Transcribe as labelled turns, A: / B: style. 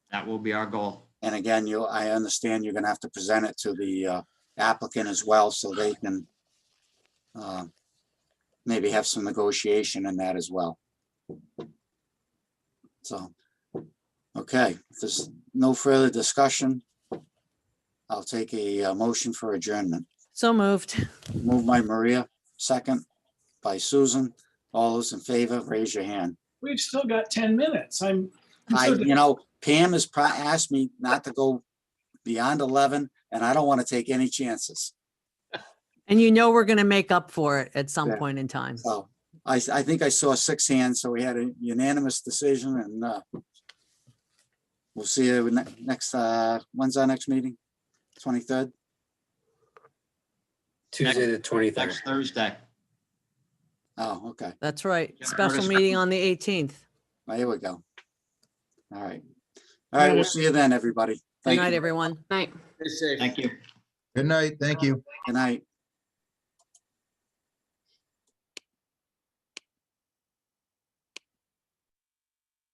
A: That will be our goal.
B: And again, you, I understand you're gonna have to present it to the uh, applicant as well, so they can uh, maybe have some negotiation in that as well. So, okay, if there's no further discussion, I'll take a uh, motion for adjournment.
C: So moved.
B: Move by Maria, second by Susan. All those in favor, raise your hand.
D: We've still got 10 minutes. I'm. I'm
B: I,
D: so-
B: you know, Pam has pro- asked me not to go beyond eleven, and I don't want to take any chances.
C: And you know we're going to make up for it at some
B: Yeah. Oh.
C: point in time.
B: So I, s- I think I saw six hands, so we had a unanimous decision and, uh, we'll see you ne- next, uh, when's our next meeting? Twenty-third?
E: Tuesday, the twenty-third.
A: Next Thursday.
B: Oh, okay.
C: That's right.
A: Yeah,
C: Special
A: Curtis.
C: meeting on the 18th.
B: Well, Here we go. All right. All right, we'll see you then, everybody.
C: Good
B: Thank
C: night,
B: you.
C: everyone.
A: Thank you.
F: Good night. Thank you.
B: Good night.